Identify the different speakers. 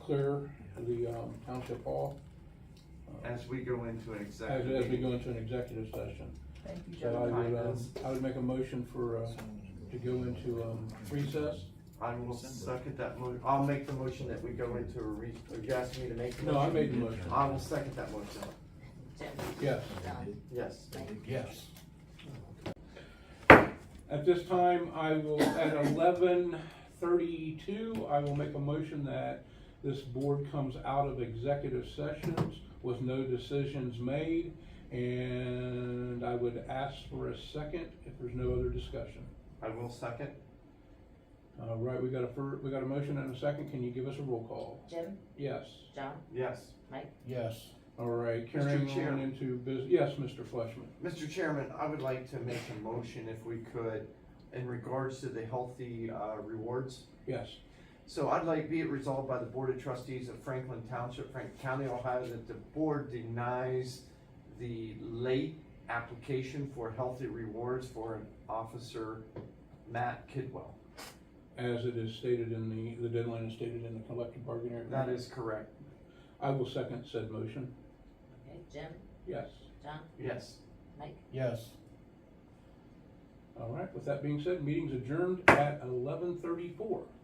Speaker 1: there, the um, township hall, uh,
Speaker 2: As we go into an
Speaker 1: as,
Speaker 2: executive.
Speaker 1: as we
Speaker 2: meeting.
Speaker 1: go into an executive session.
Speaker 3: Thank you,
Speaker 1: So I
Speaker 3: Joe.
Speaker 1: would, um,
Speaker 2: Kindness.
Speaker 1: I would make a motion for, uh, to go into um, recess.
Speaker 2: I will second that mo, I'll make the motion that we go into a re, you asked me to make the motion?
Speaker 1: No, I made the motion.
Speaker 2: I will second that motion,
Speaker 3: Jim,
Speaker 1: Yes.
Speaker 3: Don,
Speaker 2: yes.
Speaker 1: Yes. At this time, I will, at eleven thirty-two, I will make a motion that this board comes out of executive sessions with no decisions made. And I would ask for a second if there's no other discussion.
Speaker 2: I will second,
Speaker 1: All right, we got a fir, we got a motion and a second. Can you give us a roll call?
Speaker 3: Jim,
Speaker 1: Yes.
Speaker 3: John,
Speaker 2: yes.
Speaker 4: Yes.
Speaker 1: All right, carrying
Speaker 2: Chair.
Speaker 1: on into business. Yes, Mr. Fleshman.
Speaker 2: Mr. Chairman, I would like to make a motion if we could in regards to the healthy, uh, rewards
Speaker 1: Yes.
Speaker 2: So I'd like be it resolved by the Board of Trustees of Franklin Township, Franklin County, Ohio, that the board denies the late application for healthy rewards for an officer, Matt Kidwell.
Speaker 1: As it is stated in the, the deadline is stated in the collective bargaining agreement.
Speaker 2: That is correct,
Speaker 1: I will second said motion.
Speaker 3: okay, Jim,
Speaker 1: Yes.
Speaker 3: John,
Speaker 2: yes.
Speaker 3: Mike,
Speaker 4: Yes.
Speaker 1: All right, with that being said, meeting's adjourned at eleven thirty-four.